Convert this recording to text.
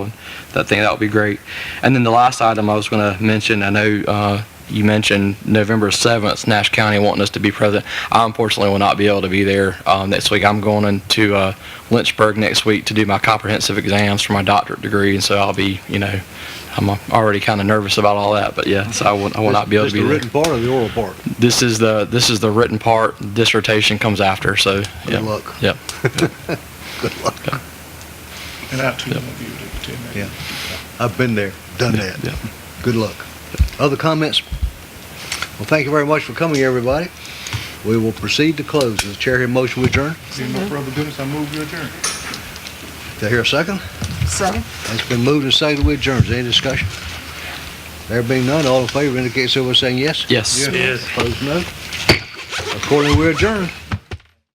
that thing, that would be great. And then the last item I was going to mention, I know uh, you mentioned November 7th, Nash County wanting us to be present. I unfortunately will not be able to be there um, next week. I'm going into uh, Lynchburg next week to do my comprehensive exams for my doctorate degree, and so I'll be, you know, I'm already kind of nervous about all that, but yeah, so I will, I will not be able to Just be the there. written part or the oral part? This is the, this is the written part, dissertation comes after, so. yeah. Good luck. Yep. Good luck. And I too want you to attend that. Yeah. I've been there, done that. yeah. Good luck. Other comments? Well, thank you very much for coming, everybody. We will proceed to close. Is the chair here motion we adjourn? Seeing no further business, I move your adjournment. Do I hear a second? Second. It's been moved and seconded we adjourn. Is there any discussion? There being none, all in favor indicate so by saying yes. Yes. Yes. Opposed, no. Accordingly, we adjourn.